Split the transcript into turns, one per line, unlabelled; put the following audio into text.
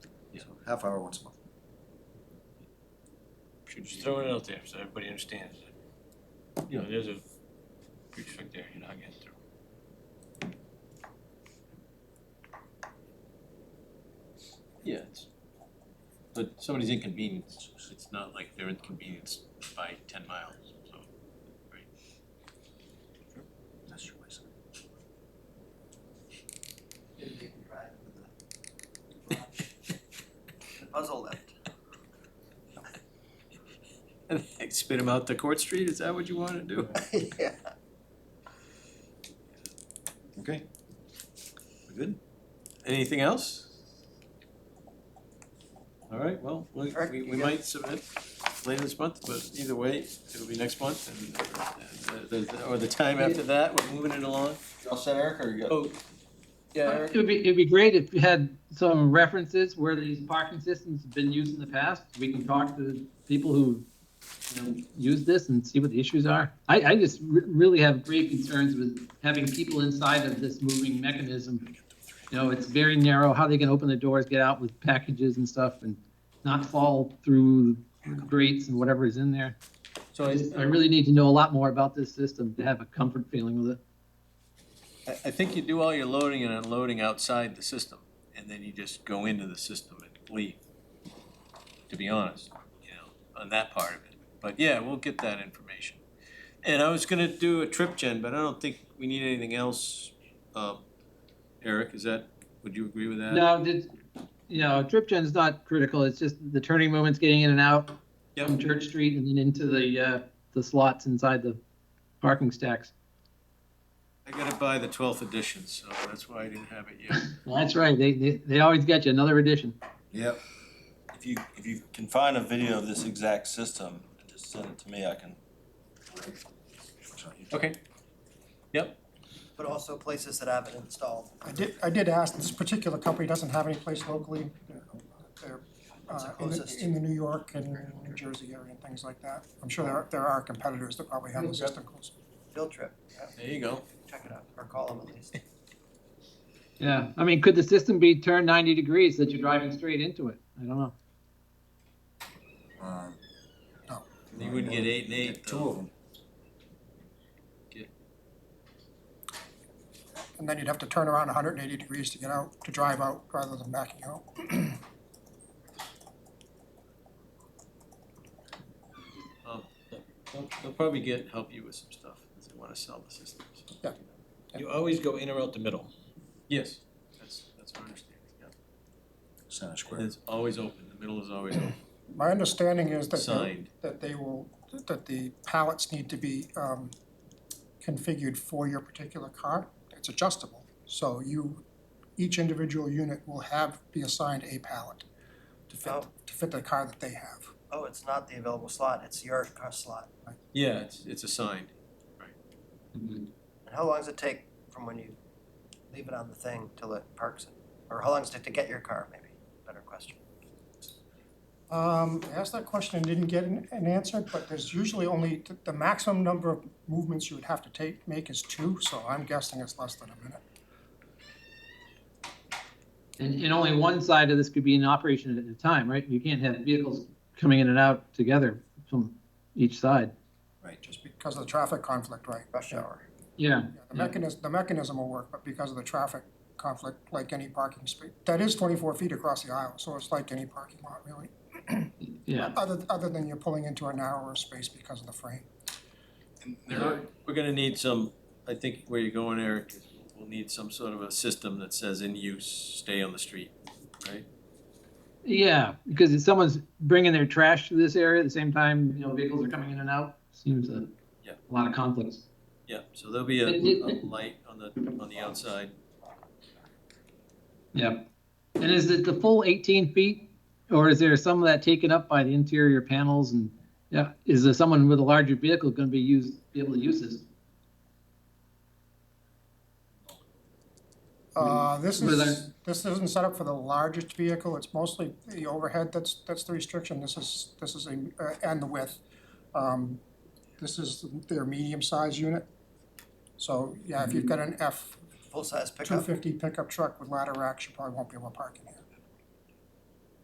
half hour once a month.
Just throwing it out there so everybody understands that, you know, there's a prefect there you're not getting through.
Yeah, it's, but somebody's inconvenienced, it's not like they're inconvenienced by ten miles, so.
That's your ways.
Puzzle left.
And they spit them out to Court Street, is that what you wanna do?
Yeah.
Okay. We Good?
Anything else? Alright, well, we,
Eric,
we,
you
we
got-
might submit later this month, but either way, it'll be next month and, uh, the- the- or the time after that, we're moving it along.
All set, Eric, or you
Oh, yeah, Eric?
It would be, it'd be great if you had some references where these parking systems have been used in the past. We can talk to people who, you know, use this and see what the issues are. I, I just re- really have great concerns with having people inside of this moving mechanism. You know, it's very narrow, how they can open the doors, get out with packages and stuff and not fall through grates and whatever is in there.
So
I just- I really need to know a lot more about this system to have a comfort feeling with it.
I, I think you do all your loading and unloading outside the system, and then you just go into the system and leave. To be honest, you know, on that part of it, but yeah, we'll get that information. And I was gonna do a trip gen, but I don't think we need anything else, um, Eric, is that, would you agree with that?
No, did, you know, drip gen's not critical, it's just the turning moments getting in and out
Yep.
from Church Street and then into the, uh, the slots inside the parking stacks.
I gotta buy the twelfth edition, so that's why I didn't have it yet.
That's right, they, they, they always get you, another edition.
Yep.
If you, if you can find a video of this exact system, and just send it to me, I can.
Okay.
But also places that haven't installed.
I did, I did ask, this particular company doesn't have any place locally. They're,
What's the
uh, in the,
closest?
in the New York and New Jersey area and things like that. I'm sure there are, there are competitors that probably have the system close.
Field trip,
There you go.
check it out, or call them at least.
Yeah, I mean, could the system be turned ninety degrees that you're driving straight into it? I don't know.
Um,
You wouldn't get eight and eight,
Get two of
though.
them.
And then you'd have to turn around hundred and eighty degrees to get out, to drive out rather than backing out.
Um, They'll, they'll probably get, help you with some stuff, if they wanna sell the system, so.
You always go in or out the middle.
Yes, that's, that's my understanding, yeah.
Center
And
Square.
it's always open, the middle is always open,
My understanding is that, they-
signed.
that they will, that the pallets need to be, um, configured for your particular car. It's adjustable, so you, each individual unit will have, be assigned a pallet to fit,
Oh.
to fit the car that they have.
Oh, it's not the available slot, it's your car slot.
Yeah, it's, it's assigned.
And how long does it take from when you leave it on the thing till it parks it? Or how long does it take to get your car, maybe? Better question.
Um, I asked that question and didn't get an, an answer, but there's usually only, th- the maximum number of movements you would have to take, make is two, so I'm guessing it's less than a minute.
And, and only one side of this could be in operation at a time, right? You can't have vehicles coming in and out together from each side.
Right. Just because of the traffic conflict, right?
Rush hour.
Yeah,
Yeah, The mechanism, the mechanism will work, but because of the traffic conflict, like any parking space, that is twenty-four feet across the aisle, so it's like any parking lot, really.
yeah.
Other, other than you're pulling into a narrower space because of the frame.
There are, we're gonna need some, I think where you're going, Eric, is we'll need some sort of a system that says in use, stay on the street.
Yeah, because if someone's bringing their trash to this area at the same time, you know, vehicles are coming in and out, seems a,
Yeah.
a lot of conflicts.
Yeah, so there'll be a,
It- it-
a light on the, on the outside.
Yep. And is it the full 18 feet, or is there some of that taken up by the interior panels and, yeah, is there someone with a larger vehicle going to be used, be able to use this?
Uh, this
Were
is,
there-
this isn't set up for the largest vehicle, it's mostly the overhead, that's, that's the restriction, this is, this is a, uh, and the width. Um, This is their medium-sized unit. So, yeah, if you've got an F
Full-size
two
pickup?
fifty pickup truck with ladder racks, you probably won't be able to park in here.